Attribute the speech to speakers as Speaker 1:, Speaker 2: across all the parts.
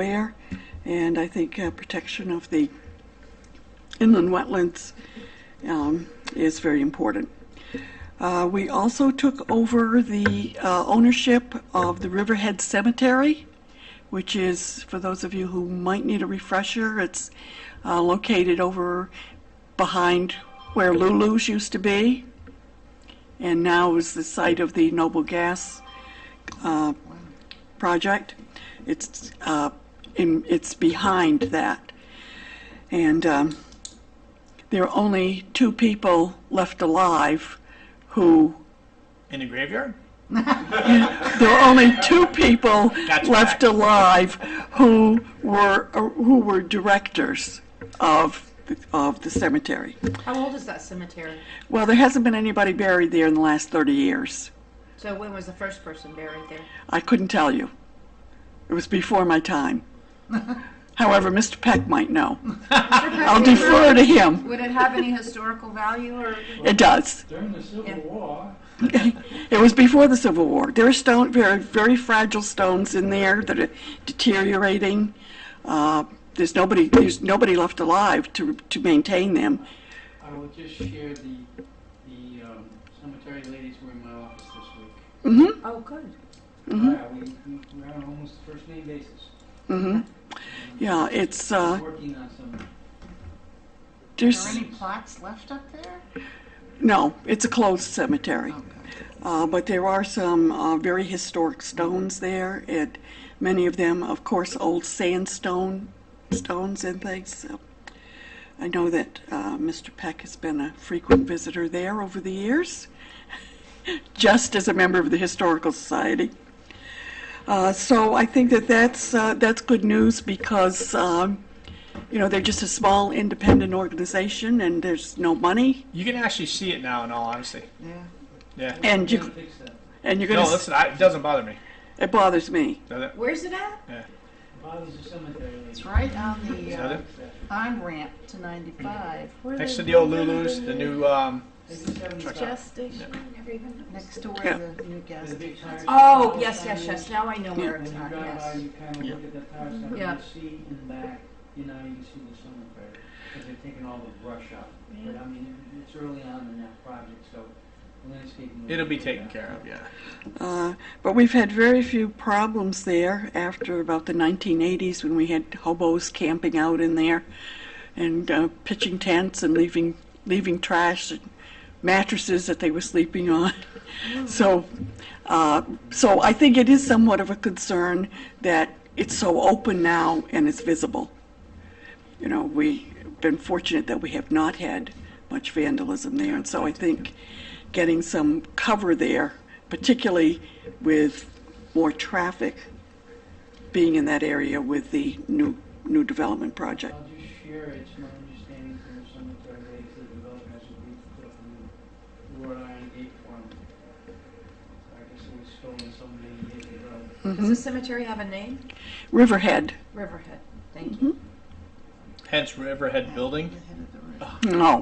Speaker 1: aware, and I think uh, protection of the inland wetlands um, is very important. Uh, We also took over the uh, ownership of the Riverhead Cemetery, which is, for those of you who might need a refresher, it's uh, located over behind where Lulu's used to be, and now is the site of the Noble Gas uh, project. It's, uh, in- it's behind that. And um, there are only two people left alive who,
Speaker 2: In the graveyard?
Speaker 1: there are only two people
Speaker 2: That's
Speaker 1: left
Speaker 2: correct.
Speaker 1: alive who were, who were directors of, the- of the cemetery.
Speaker 3: How old is that cemetery?
Speaker 1: Well, there hasn't been anybody buried there in the last 30 years.
Speaker 3: So when was the first person buried there?
Speaker 1: I couldn't tell you. It was before my time. However, Mr. Peck might know. I'll defer to him.
Speaker 3: Would it have any historical value or?
Speaker 1: It does.
Speaker 4: During the Civil War,
Speaker 1: It was before the Civil War. There are stone, very, very fragile stones in there that are deteriorating. Uh, there's nobody, there's nobody left alive to, to maintain them.
Speaker 4: I will just share the, the um, cemetery ladies were in my office this week.
Speaker 1: Mm-hmm,
Speaker 3: Oh, good.
Speaker 1: Mhm.
Speaker 4: Uh, we, we- we're on almost first name basis,
Speaker 1: mm-hmm. Yeah, it's, uh,
Speaker 4: working on some,
Speaker 5: Are there
Speaker 1: there's,
Speaker 5: any plots left up there?
Speaker 1: no, it's a closed cemetery.
Speaker 5: Okay.
Speaker 1: Uh, but there are some uh, very historic stones there, and many of them, of course, old sandstone stones and things. So I know that uh, Mr. Peck has been a frequent visitor there over the years, just as a member of the Historical Society. Uh, so I think that that's uh, that's good news because um, you know they're just a small independent organization and there's no money
Speaker 2: You can actually see it now, in all honesty.
Speaker 5: Yeah.
Speaker 2: Yeah.
Speaker 4: we
Speaker 1: and
Speaker 4: can't
Speaker 1: you
Speaker 4: fix that.
Speaker 1: and you're gonna
Speaker 2: No,
Speaker 1: s-
Speaker 2: listen, I, it doesn't bother me.
Speaker 1: it bothers me.
Speaker 2: Does it?
Speaker 3: Where's it at?
Speaker 4: Bodies of cemetery ladies.
Speaker 5: It's right on the
Speaker 2: Is that
Speaker 5: uh,
Speaker 2: it?
Speaker 5: on ramp to 95. Where
Speaker 2: Next to
Speaker 5: they-
Speaker 2: the old Lulu's, the new, um,
Speaker 4: It's a seventy-five.
Speaker 3: Gas station, everything.
Speaker 5: Next to
Speaker 1: Yeah.
Speaker 5: where the new gas
Speaker 4: There's a big
Speaker 5: station
Speaker 4: tire
Speaker 5: is.
Speaker 4: shop.
Speaker 3: Oh, yes, yes, yes. Now I know where
Speaker 4: When
Speaker 3: it's
Speaker 4: you
Speaker 3: at,
Speaker 4: drive by,
Speaker 3: yes.
Speaker 4: you kind of look at the tire shop, and
Speaker 3: Yeah.
Speaker 4: you see in back, you know, you can see the cemetery, because they're taking all the brush out. But I mean, it- it's early on in that project, so landscaping. will
Speaker 2: it'll be
Speaker 4: good
Speaker 2: taken
Speaker 4: now.
Speaker 2: care of, yeah.
Speaker 1: Uh, But we've had very few problems there after about the 1980s when we had hobos camping out in there and uh, pitching tents and leaving, leaving trash and mattresses that they were sleeping on. So, uh, so I think it is somewhat of a concern that it's so open now and it's visible. You know, we've been fortunate that we have not had much vandalism there, and so I think getting some cover there, particularly with more traffic being in that area with the new, new development project.
Speaker 4: I'll just share, it's my understanding from the cemetery ladies, the developers agreed to put up a new wrought iron gate for them. I guess it was stolen somebody years ago.
Speaker 3: Does the cemetery have a name?
Speaker 1: Riverhead,
Speaker 3: Riverhead. Thank you.
Speaker 2: Hence Riverhead
Speaker 5: The
Speaker 2: Building.
Speaker 5: head of the road.
Speaker 1: no.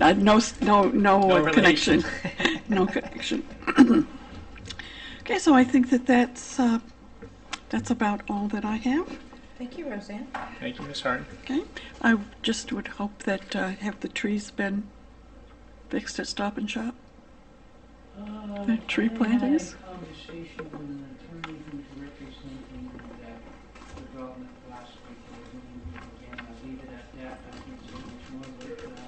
Speaker 1: Uh, No, s- no, no
Speaker 2: No
Speaker 1: uh, connection.
Speaker 2: relation.
Speaker 1: No connection. Okay, so I think that that's, uh, that's about all that I have.
Speaker 3: Thank you, Roseanne.
Speaker 2: Thank you, Miss Hart.
Speaker 1: Okay, I just would hope that, uh, have the trees been fixed at Stop and Shop?
Speaker 4: Uh,
Speaker 1: That tree
Speaker 4: I had a
Speaker 1: plantings?
Speaker 4: Conversation with an attorney who's representing that development last week, and we're gonna meet again, I'll leave it at that, I can't say much more, but,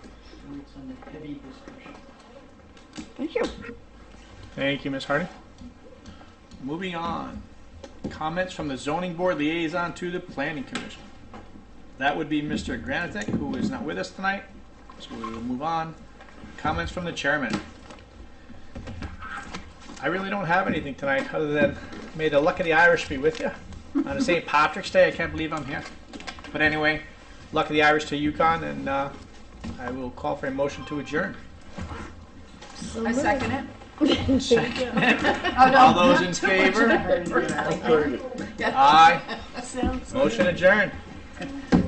Speaker 4: uh, it's under heavy discussion.
Speaker 1: Thank you.
Speaker 2: Thank you, Miss Harding. Moving on. Comments from the zoning board liaison to the planning commission. That would be Mr. Granitek, who is not with us tonight, so we will move on. Comments from the chairman. I really don't have anything tonight, other than may the luck of the Irish be with you. On a St. Patrick's Day, I can't believe I'm here. But anyway, luck of the Irish to Yukon, and uh, I will call for a motion to adjourn.
Speaker 3: I second it.
Speaker 2: All those in favor?
Speaker 5: Very good.
Speaker 2: Aye. Motion adjourned.